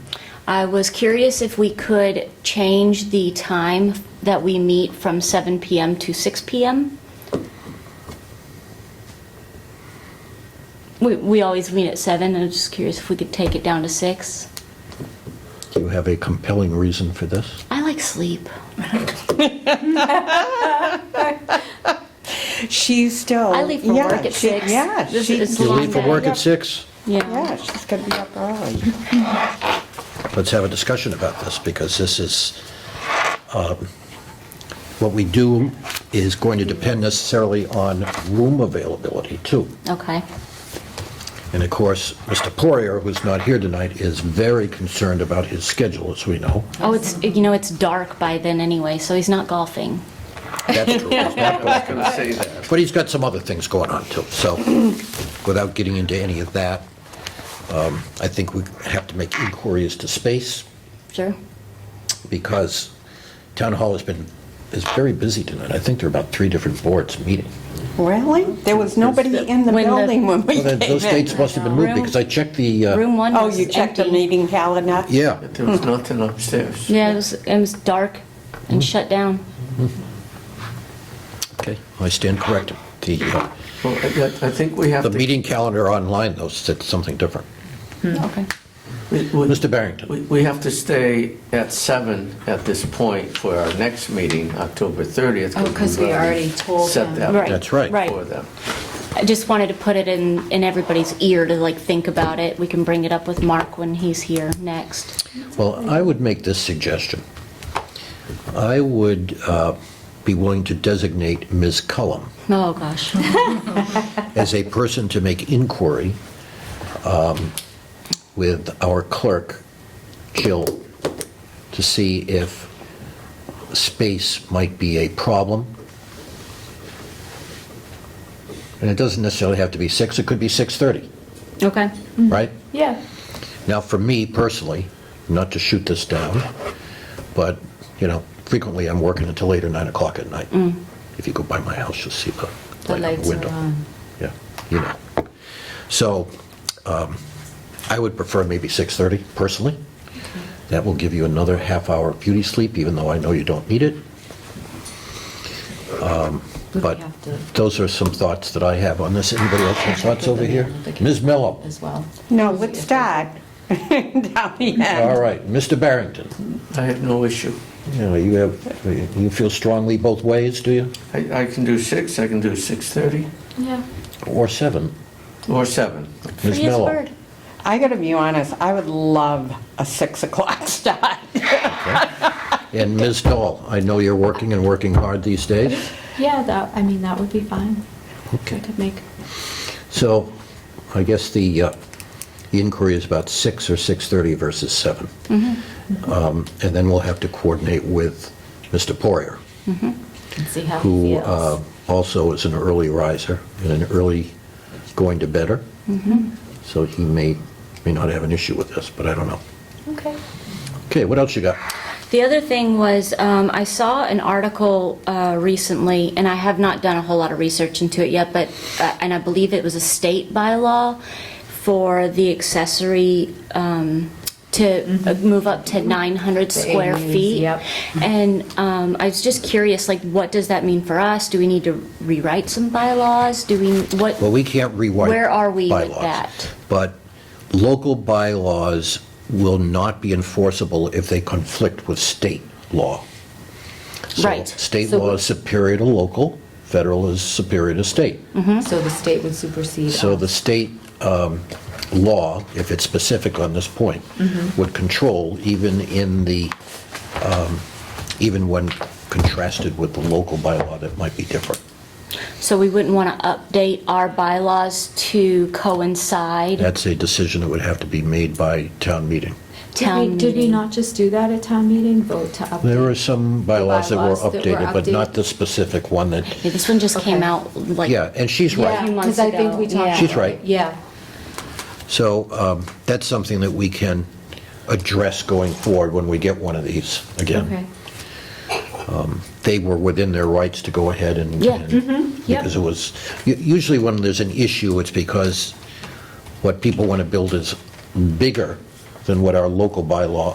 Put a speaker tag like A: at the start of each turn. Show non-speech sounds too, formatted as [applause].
A: I was curious if we could change the time that we meet from 7 PM to 6 PM? We, we always meet at 7, and I'm just curious if we could take it down to 6.
B: Do you have a compelling reason for this?
A: I like
C: [laughs]
A: sleep.
C: She's still.
A: I leave for
C: yeah,
A: work at
C: she-
A: 6.
C: Yeah.
A: This
C: she-
A: is- It's a
B: You
A: long
B: leave for
A: day.
B: work at six?
C: Yeah, she's gonna be up early.
B: Let's have a discussion about this, because this is, um, what we do is going to depend necessarily on room availability, too.
A: Okay.
B: And of course, Mr. Poirier, who's not here tonight, is very concerned about his schedule, as we know.
A: Oh, it's, you know, it's dark by then anyway, so he's not golfing.
B: That's
A: [laughs]
B: true. He's not going to.
D: gonna say that.
B: But he's got some other things going on, too. So without getting into any of that, um, I think we have to make inquiry as to space.
A: Sure.
B: because Town Hall has been, is very busy tonight. I think there are about three different boards meeting.
C: Really? There was nobody in the
A: When the-
C: building when we
B: Well, then,
C: came
B: Those dates
C: in.
B: must have been moved, because I checked the, uh,
A: Room 1
C: Oh,
A: was
C: you checked the
A: empty.
C: meeting calendar?
B: yeah,
D: There was nothing upstairs.
A: Yeah, it was, it was dark
B: Mm-hmm.
A: and shut down.
B: okay, I stand corrected. The, uh,
D: Well, I, I think we have
B: the
D: to.
B: meeting calendar online, though, said something different.
A: Okay.
D: we- we-
B: Mr. Barrington,
D: We, we have to stay at seven at this point for our next meeting, October thirtieth.
E: Oh, 'cause we already told
D: Set
E: them.
A: Right.
D: that
B: that's right.
A: Right.
D: for them.
A: I just wanted to put it in, in everybody's ear to like think about it. We can bring it up with Mark when he's here next.
B: Well, I would make this suggestion. I would uh, be willing to designate Ms. Cullum
A: Oh, gosh.
B: as a person to make inquiry um, with our clerk, Jill, to see if space might be a problem. And it doesn't necessarily have to be 6, it could be 6:30,
A: Okay.
B: right?
E: Mm-hmm. Yeah.
B: Now, for me personally, not to shoot this down, but, you know, frequently I'm working until 8 or 9 o'clock at night. If you go by my house, you'll see the
E: Mm. The
B: light on
E: lights
B: the
E: are
B: window.
E: on.
B: Yeah, you know. So um, I would prefer maybe 6:30 personally. That will give you another half hour of beauty sleep, even though I know you don't need it. Um, But
E: have to-
B: those are some thoughts that I have on this. Anybody else have thoughts over here? Ms. Mello?
E: As well.
C: No, let's start [laughs] down the end.
B: All right, Mr. Barrington?
D: I have no issue.
B: You know, you have, you feel strongly both ways, do you?
D: I, I can do six, I can do six thirty
E: Yeah.
B: Or 7?
D: or seven.
B: Ms.
A: Free as a
B: Mello?
A: bird.
C: I gotta be honest, I would love a 6 o'clock [laughs] start.
B: And Ms. Dahl, I know you're working and working hard these days.
E: Yeah, that, I mean, that would be fine.
B: Okay.
E: I could make
B: So I guess the uh, the inquiry is about 6 or 6:30 versus 7. Um, And then we'll have to coordinate with Mr. Poirier,
E: and see how he
B: who uh,
E: feels.
B: also is an early riser and an early going to bedder. So he may, may not have an issue with this, but I don't know.
E: Okay.
B: Okay, what else you got?
A: The other thing was, um, I saw an article uh, recently, and I have not done a whole lot of research into it yet, but, uh, and I believe it was a state bylaw for the accessory um, to uh,
E: Mm-hmm.
A: move up to 900 square
E: AUs,
A: feet.
E: yep.
A: And um, I was just curious, like, what does that mean for us? Do we need to rewrite some bylaws? Do we, what?
B: Well, we can't rewrite.
A: Where are we with
B: bylaws,
A: that?
B: But local bylaws will not be enforceable if they conflict with state law. So
A: Right.
B: State
E: So-
B: law is superior to local, federal is superior to state.
A: Mm-hmm.
E: So the state would supersede.
B: So
E: us.
B: the state um, law, if it's specific on this point,
A: Mm-hmm.
B: would control even in the, um, even when contrasted with the local bylaw that might be different.
A: So we wouldn't want to update our bylaws to coincide
B: That's a decision that would have to be made by town meeting.
E: Did
A: town
E: we,
A: meeting?
E: did we not just do that at town meeting, vote to update?
B: There are some bylaws that were
E: bylaws that were
B: updated, but not
E: updated.
B: the specific one that,
A: Yeah, this one just came
E: Okay.
A: out like.
B: yeah, and she's
E: Yeah,
B: right.
A: few months
E: because I think
A: ago,
E: we
A: yeah.
E: talked.
B: She's
E: about it.
B: right.
E: Yeah.
B: So um, that's something that we can address going forward when we get one of these
E: Okay.
B: again. They were within their rights to go ahead and.
A: Yeah.
B: and-
E: yeah. Mm-hmm.
B: Because it was, u- usually when there's an issue, it's because what people want to build is bigger than what our local bylaw